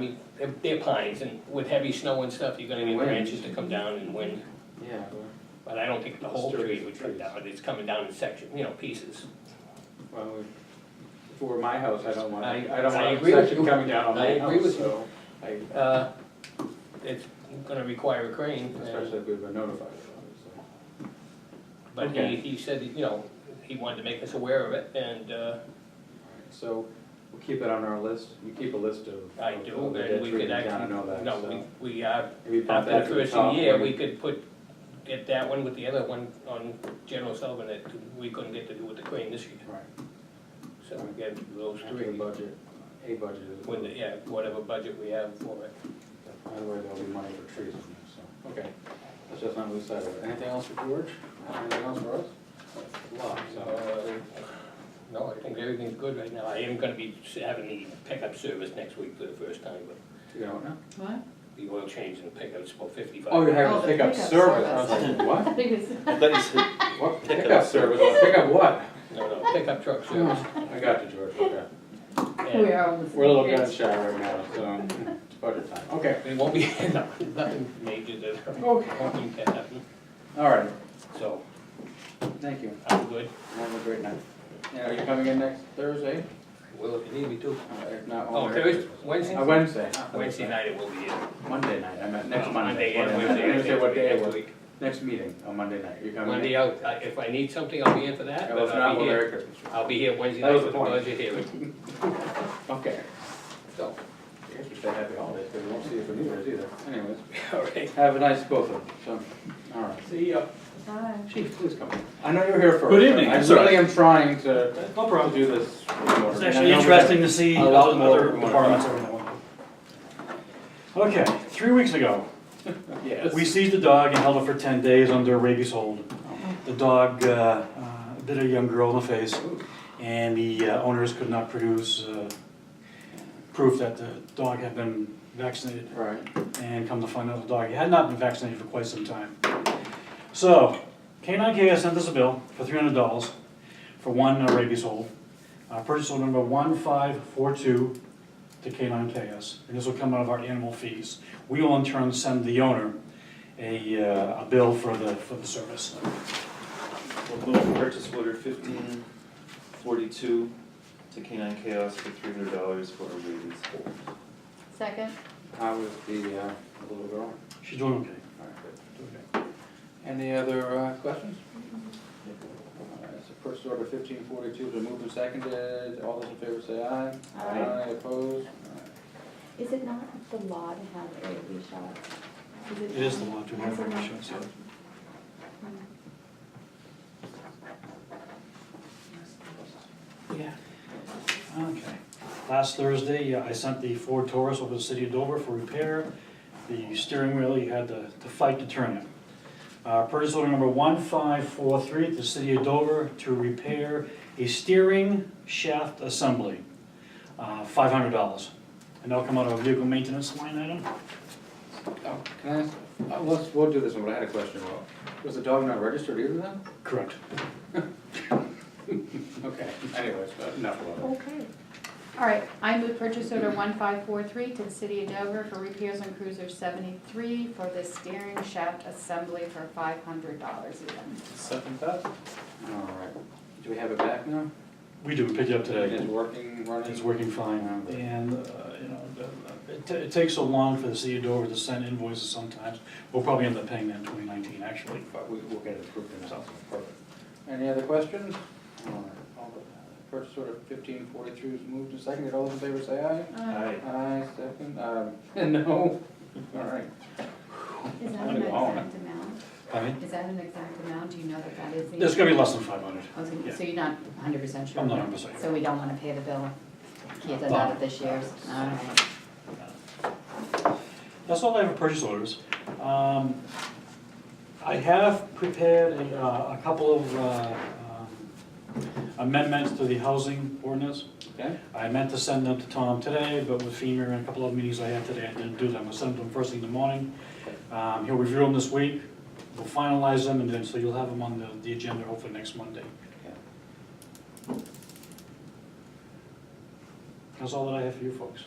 I mean, they're- they're pines, and with heavy snow and stuff, you're gonna need Wind. branches to come down and wind. Yeah. But I don't think the whole Sturdy tree would come trees. down, it's coming down in section, you know, pieces. Well, if it were my house, I don't want, I- I don't I want agree with obstruction you. coming down on I my agree house, with you. so. I, Uh, It's gonna require a crane, and- especially if we've been notified, obviously. but Okay. he, he said, you know, he wanted to make us aware of it, and uh, Alright, So we'll keep it on our list. You keep a list of. I of do, the and dead we could trees in town, I actually, know that, no, so. we, we are, Maybe bump after that the to first top year, when- we could put, get that one with the other one on General Sullivan that we couldn't get to do with the crane this year. Right, So we get those after the three, budget, a budget is. with, the- yeah, whatever budget we have for it. Otherwise, there'll be money for trees in there, so, okay. Let's just not lose sight of it. Anything else for George? Anything else for us? Lots, so. So, no, I think everything's good right now. I am gonna be having the pickup service next week for the first time, but You don't know? What? the oil change in the pickup's about fifty-five. Oh, you're having Oh, a the pickup pickup service. I was service. like, what? I thought you said, What Pickup pickup service? Pickup what? No, no, pickup truck Oh. service. I got you, George, okay. Oh, And- We are almost. We're a little gun shy right now, so it's budget time. Okay. It won't be, no, nothing major that, won't Okay. that happen, All right, so thank you. I'm good. Have a great night. Yeah, are you coming in next Thursday? Will, if you need me to. Uh, If not, Oh, all right. Thursday, Wednesday? Uh, Wednesday. Wednesday night it will be in. Monday night, I meant Uh, next Monday. and What- Wednesday. I didn't say what day it next was. week. Next meeting on Monday night. You coming in? Monday, I'll- I- if I need something, I'll be in for that, Yeah, but let's not I'll be with here, Eric Christmas. I'll be here Wednesday That night was with the the point. budget hearing, Okay. so, I guess we should happy holidays, because we won't see you for New Year's either. Anyways, all right. have a nice both of them, so, all right. See ya. Hi. Chief, please come in. I know you're here first. Good evening. I That's all really am trying to to No problem. do this. in order. It's And I actually know we interesting to see a lot other more other going on. departments over that one. Okay, three weeks ago, have- Yes. we seized a dog and held it for ten days under rabies hold. The dog uh, uh, bit a young girl in the face, and the uh, owners could not produce uh, proof that the dog had been vaccinated. Right. and come to find out the dog had not been vaccinated for quite some time. So, K9K has sent us a bill for three hundred dollars for one uh, rabies hold. Uh, purchase order number one five four two to K9KS, and this will come out of our animal fees. We will in turn send the owner a, uh, a bill for the, for the service. we'll move purchase order fifteen forty-two to Canine Chaos for three hundred dollars for a rabies hold. Second? How was the, uh, little girl? She's doing okay. All right, good. Any other uh, questions? All right, So first order fifteen forty-two, been moved and seconded, all those in favor say aye. Aye. opposed? All right. Is it not the law to have rabies shots? It is the law to have Is it not? rabies shots, yeah. Yeah. Okay. Last Thursday, uh, I sent the Ford Taurus over to the city of Dover for repair. The steering wheel, you had to to fight to turn it. Uh, Purchase order number 1543 to the city of Dover to repair a steering shaft assembly, uh, $500. And that'll come out of a vehicle maintenance line item. Oh, Can I ask, uh, let's, we'll do this one, but I had a question, Well, was the dog not registered either then? Correct. Okay, anyways, but enough about it. Okay. All right, I move purchase order one five four three to the city of Dover for repairs on cruiser seventy-three for the steering shaft assembly for five hundred dollars even. Second that? All right, do we have it back now? We do, we picked it up today. It's working, running? It's working fine, Yeah. and, uh, you know, the- it ta- it takes so long for the city of Dover to send invoices sometimes. We'll probably end up paying that in 2019, actually. But we, we'll get it approved in the house. Perfect. Any other questions? All right, all the- uh, Purchase order fifteen forty-two is moved and seconded, all those in favor say aye. Uh, Aye, second, um, no, all right. Is that I'm an gonna- exact amount? I mean, Is that an exact amount? Do you know that that is? the- it's gonna be less than 500. I was gonna- yeah. So you're not hundred percent sure? I'm not 100% sure. So we don't wanna pay the bill? Can't No. deny it this year's? All right. That's all I have for purchase orders. Um, I have prepared a, uh, a couple of uh, um, amendments to the housing ordinance. Okay, I meant to send them to Tom today, but with FEMA and a couple of meetings I had today, I didn't do them. I'll send them to him first thing in the morning. Um, He'll review them this week, we'll finalize them, and then, so you'll have them on the, the agenda hopefully next Monday. That's all that I have for you folks.